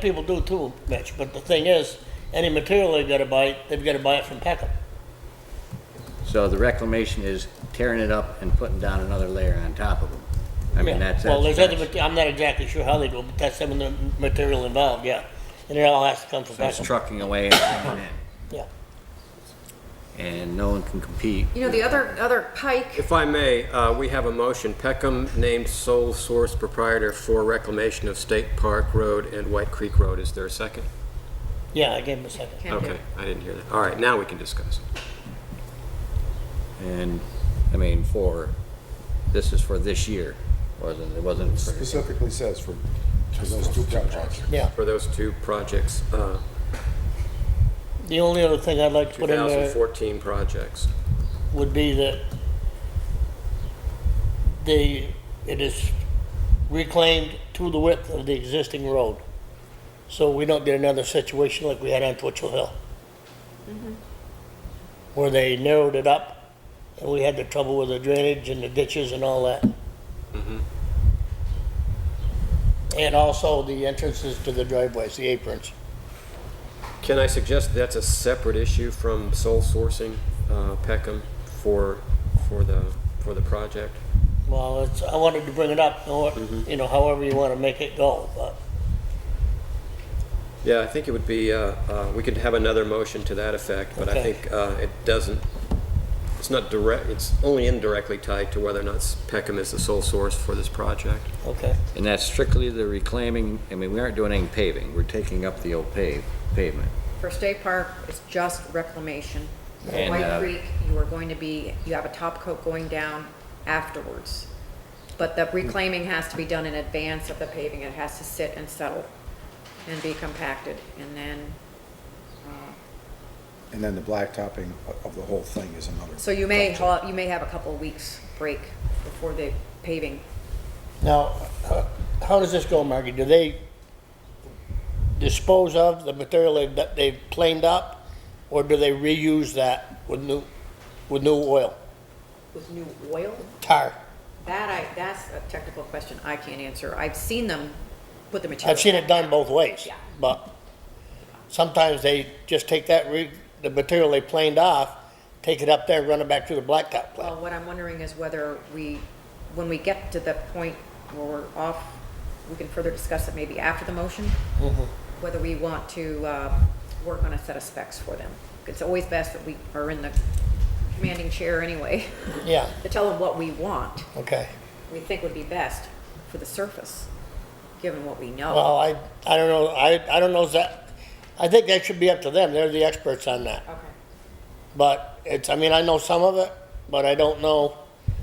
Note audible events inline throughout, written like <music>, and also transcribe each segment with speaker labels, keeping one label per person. Speaker 1: People do too, Mitch, but the thing is, any material they've gotta buy, they've gotta buy it from Peckham.
Speaker 2: So the reclamation is tearing it up and putting down another layer on top of them. I mean, that's,
Speaker 1: Well,
Speaker 2: that's,
Speaker 1: there's other,
Speaker 2: that's-
Speaker 1: mate- I'm not exactly sure how they do, it, but that's some of the material involved, yeah. And it all has to come from
Speaker 2: that's
Speaker 1: Peckham,
Speaker 2: trucking away and coming
Speaker 1: <coughs> yeah.
Speaker 2: in, and no one can compete.
Speaker 3: You know, the other, other pike,
Speaker 4: If I may, uh, we have a motion. Peckham named sole source proprietor for reclamation of State Park Road and White Creek Road. Is there a second?
Speaker 1: Yeah, I gave him a second.
Speaker 3: Okay.
Speaker 4: Okay, I didn't hear that. All right, now we can discuss.
Speaker 2: And, I mean, for, this is for this year, wasn't, it wasn't for,
Speaker 5: specifically says for, for those two projects.
Speaker 1: Yeah,
Speaker 4: For those two projects, uh,
Speaker 1: the only other thing I'd like to put in there
Speaker 4: 2014 projects.
Speaker 1: would be that the, it is reclaimed to the width of the existing road. So we don't get another situation like we had on Twitchell Hill. Where they narrowed it up and we had the trouble with the drainage and the ditches and all that. And also the entrances to the driveways, the aprons.
Speaker 4: Can I suggest that's a separate issue from sole sourcing uh, Peckham for, for the, for the project?
Speaker 1: Well, it's, I wanted to bring it up, or, you know, however you wanna make it go, but.
Speaker 4: Yeah, I think it would be, uh, uh, we could have another motion to that effect, but I
Speaker 1: Okay.
Speaker 4: think uh, it doesn't, it's not direct, it's only indirectly tied to whether or not Peckham is the sole source for this project.
Speaker 1: Okay.
Speaker 2: and that's strictly the reclaiming, I mean, we aren't doing any paving, we're taking up the old pave, pavement.
Speaker 3: for State Park, it's just reclamation. For
Speaker 2: And,
Speaker 3: White
Speaker 2: uh,
Speaker 3: Creek, you are going to be, you have a top coat going down afterwards. But the reclaiming has to be done in advance of the paving, it has to sit and settle and be compacted, and then,
Speaker 5: And then the blacktopping of- of the whole thing is another.
Speaker 3: so you may,
Speaker 5: project.
Speaker 3: ha- you may have a couple of weeks break before the paving.
Speaker 1: Now, uh, how does this go, Margie? Do they dispose of the material they- that they've planed up, or do they reuse that with new, with new oil,
Speaker 3: With new oil?
Speaker 1: tar?
Speaker 3: That I, that's a technical question I can't answer. I've seen them put the material.
Speaker 1: I've seen it done both ways.
Speaker 3: Yeah.
Speaker 1: But sometimes they just take that, re- the material they planed off, take it up there, run it back through the blacktop
Speaker 3: Well,
Speaker 1: plant.
Speaker 3: what I'm wondering is whether we, when we get to the point where we're off, we can further discuss it maybe after the motion, whether we want to uh, work on a set of specs for them. It's always best that we are in the commanding chair anyway, <laughs>
Speaker 1: Yeah,
Speaker 3: to tell them what we want,
Speaker 1: okay.
Speaker 3: we think would be best for the surface, given what we know.
Speaker 1: Well, I, I don't know, I, I don't know if that, I think that should be up to them. They're the experts on that.
Speaker 3: Okay.
Speaker 1: But it's, I mean, I know some of it, but I don't know,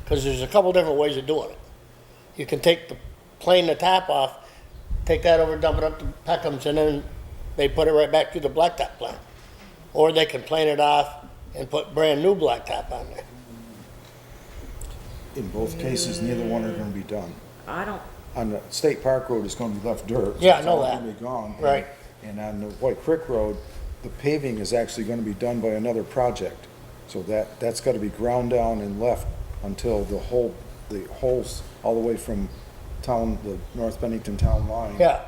Speaker 1: because there's a couple different ways of doing it. You can take the, plane the tap off, take that over, dump it up to Peckham's, and then they put it right back through the blacktop plant. Or they can plane it off and put brand-new blacktop on there.
Speaker 5: In both cases, neither one are gonna be done.
Speaker 3: I don't,
Speaker 5: On the State Park Road, it's gonna be left dirt.
Speaker 1: Yeah, I know
Speaker 5: It's all
Speaker 1: that.
Speaker 5: gonna be gone. And-
Speaker 1: Right.
Speaker 5: And on the White Creek Road, the paving is actually gonna be done by another project. So that, that's gotta be ground down and left until the whole, the holes, all the way from town, the North Bennington town line.
Speaker 1: Yeah.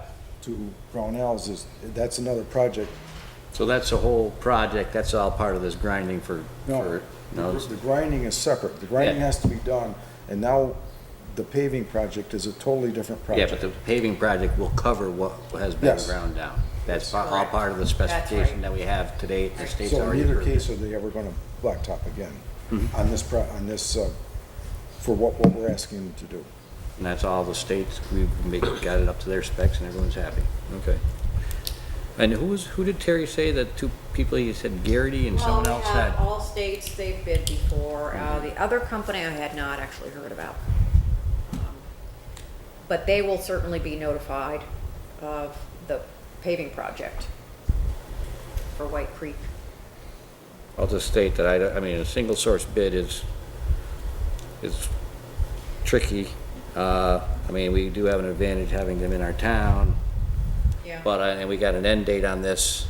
Speaker 5: To Brownells is, that's another project
Speaker 2: So that's the whole project, that's all part of this grinding for,
Speaker 5: No,
Speaker 2: for, no,
Speaker 5: the grinding is separate. The grinding
Speaker 2: Yeah.
Speaker 5: has to be done, and now the paving project is a totally different
Speaker 2: yeah, but
Speaker 5: project.
Speaker 2: the paving project will cover what has been
Speaker 5: Yes.
Speaker 2: ground down. That's pa- all part of the specification that we have today, the state's
Speaker 5: So in
Speaker 2: already
Speaker 5: either
Speaker 2: approved. it.
Speaker 5: case, are they ever gonna blacktop again
Speaker 2: Mm-hmm.
Speaker 5: on this, pro- on this, uh, for what, what we're asking them to do?
Speaker 2: And that's all the states, we've make- got it up to their specs and everyone's happy. Okay. And who was, who did Terry say that two people, he said Garrity and someone else Mm-hmm.
Speaker 3: Well, we
Speaker 2: had?
Speaker 3: have all states they've bid before. Uh, The other company I had not actually heard about. Um, But they will certainly be notified of the paving project for White Creek.
Speaker 2: I'll just state that I, don't- I mean, a single source bid is, is tricky. Uh, I mean, we do have an advantage having them in our town,
Speaker 3: Yeah.
Speaker 2: but, uh, I- and we got an end date on this.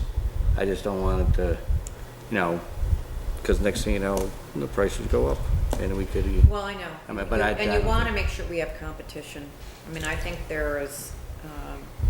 Speaker 2: I just don't want it to, you know, because next thing you know, the prices go up and we could,
Speaker 3: Well, I know.
Speaker 2: I mean, but I-
Speaker 3: And you
Speaker 2: I-
Speaker 3: want to make sure we have competition. I mean, I think there is, um,